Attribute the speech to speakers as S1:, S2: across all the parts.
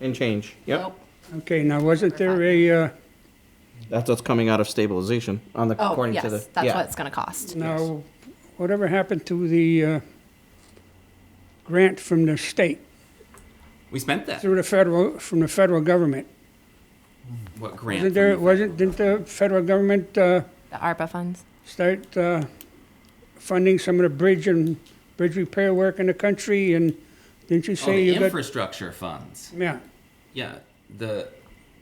S1: and change, yep.
S2: Nope.
S3: Okay, now wasn't there a, uh,
S1: That's what's coming out of stabilization on the,
S2: Oh,
S1: according
S2: yes,
S1: to the,
S2: that's what
S1: yeah.
S2: it's gonna cost.
S3: now, whatever happened to the uh, grant from the state,
S4: We spent that.
S3: through the federal, from the federal government?
S4: What grant?
S3: Wasn't there,
S4: from the
S3: wasn't, didn't the federal government uh,
S2: The ARPA funds.
S3: start uh, funding some of the bridge and bridge repair work in the country? And didn't you
S4: Oh,
S3: say
S4: the
S3: you got?
S4: infrastructure funds.
S3: Yeah,
S4: Yeah, the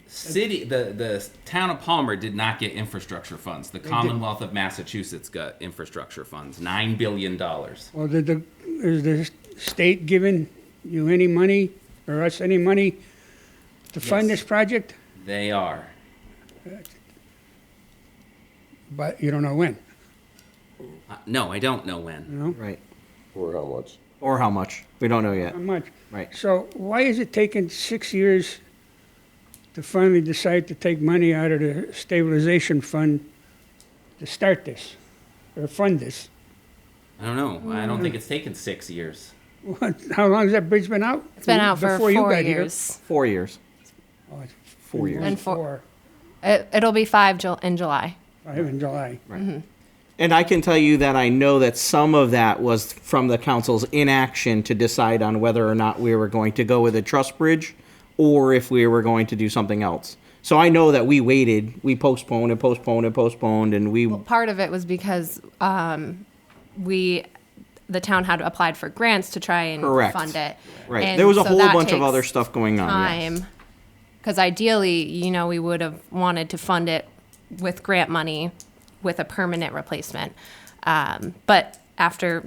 S4: city, the the town of Palmer did not get infrastructure funds. The Commonwealth of Massachusetts got infrastructure funds, nine billion dollars.
S3: well, did the, is the state giving you any money or us any money to fund
S4: Yes.
S3: this project?
S4: They are.
S3: But you don't know when.
S4: Uh, no, I don't know when.
S1: Right,
S5: Or how much?
S1: or how much, we don't know yet,
S3: How much?
S1: right.
S3: So why is it taking six years to finally decide to take money out of the stabilization fund to start this or fund this?
S4: I don't know. I don't think it's taken six years.
S3: What, how long has that bridge been out?
S2: It's been out for
S3: Before you
S2: four
S3: got here.
S2: years.
S1: Four years,
S3: Oh, it's
S1: four years.
S2: And four- It, it'll be five Jul- in July.
S3: Five in July.
S1: And I can tell you that I know that some of that was from the council's inaction to decide on whether or not we were going to go with a trust bridge or if we were going to do something else. So I know that we waited, we postponed and postponed and postponed and we,
S2: Part of it was because um, we, the town had applied for grants to try and
S1: Correct.
S2: fund it.
S1: right,
S2: And
S1: there was a
S2: so
S1: whole
S2: that
S1: bunch of other
S2: takes
S1: stuff going on. yes.
S2: Time, because ideally, you know, we would have wanted to fund it with grant money with a permanent replacement. Um, but after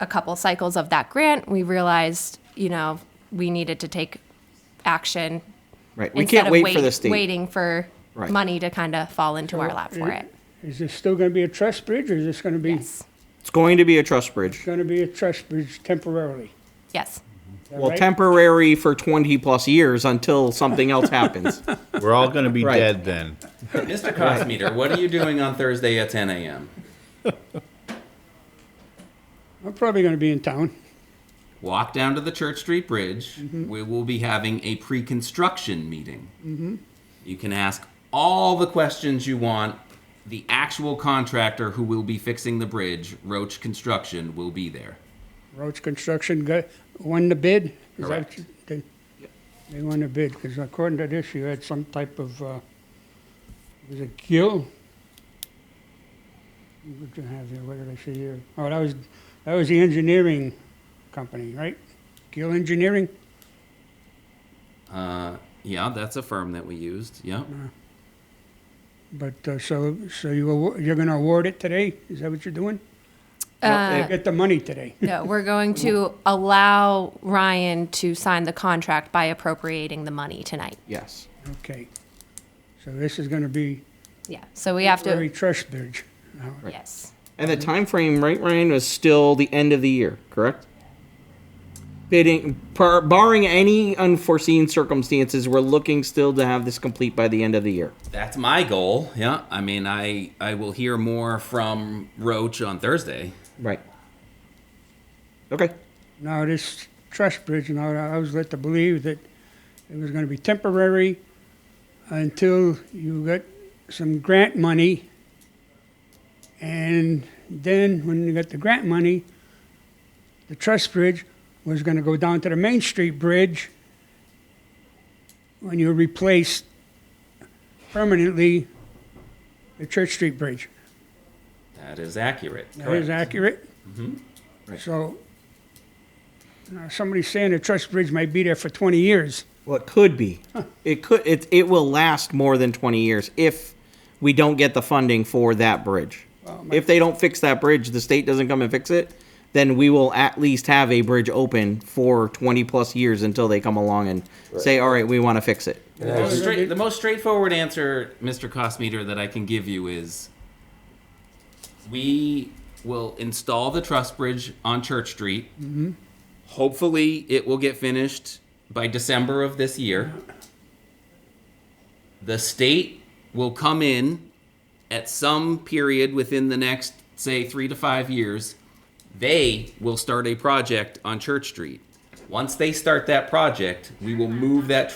S2: a couple cycles of that grant, we realized, you know, we needed to take action.
S1: Right, we
S2: instead
S1: can't
S2: of
S1: wait for
S2: wait-
S1: the state.
S2: Waiting for
S1: Right.
S2: money to kind of fall into our lap for it.
S3: Is this still going to be a truss bridge or is this going to be,
S2: Yes.
S1: It's going to be a trust bridge.
S3: going to be a truss bridge temporarily?
S2: Yes.
S3: Is that
S1: Well,
S3: right?
S1: temporary for twenty plus years until something else happens.
S6: We're all going to be
S1: Right.
S6: dead then.
S4: Mr. Cosmeter, what are you doing on Thursday at 10 a.m.?
S3: I'm probably going to be in town.
S4: Walk down to the Church Street Bridge.
S3: Mm-hmm.
S4: We will be having a pre construction meeting.
S3: Mm-hmm.
S4: You can ask all the questions you want. The actual contractor who will be fixing the bridge, Roach Construction, will be there.
S3: Roach Construction got, won the bid? Is that what
S4: Correct.
S3: you- They they won the bid, because according to this, you had some type of, uh, was it gill? What do you have here, what did I see here? Oh, that was, that was the engineering company, right? Gill Engineering?
S4: Uh, yeah, that's a firm that we used. Yep.
S3: But, uh, so, so you, awa- you're gonna award it today? Is that what you're doing?
S1: Well, it-
S3: Get the money today.
S2: Uh, No, we're going to allow Ryan to sign the contract by appropriating the money tonight.
S1: Yes,
S3: Okay. So this is gonna be
S2: Yeah. So we have
S3: very
S2: to,
S3: trust bridge. now.
S2: yes.
S1: and the time frame, right, Ryan, was still the end of the year, correct? Bidding, par- barring any unforeseen circumstances, we're looking still to have this complete by the end of the year.
S4: That's my goal. Yeah. I mean, I, I will hear more from Roach on Thursday.
S1: Right. Okay.
S3: Now, this trust bridge, now, I was led to believe that it was gonna be temporary until you got some grant money. And then, when you got the grant money, the trust bridge was gonna go down to the Main Street Bridge when you replaced permanently the Church Street Bridge.
S4: That is accurate.
S3: That is accurate? So, uh, somebody's saying the truss bridge might be there for 20 years.
S1: Well, it could be. It could. It it will last more than twenty years if we don't get the funding for that bridge. if they don't fix that bridge, the state doesn't come and fix it, then we will at least have a bridge open for twenty plus years until they come along and say, "All right, we want to fix it."
S4: The most straight- the most straightforward answer, Mr. Cosmeter, that I can give you is we will install the truss bridge on Church Street. Hopefully, it will get finished by December of this year. The state will come in at some period within the next, say, three to five years. They will start a project on Church Street. Once they start that project, we will move that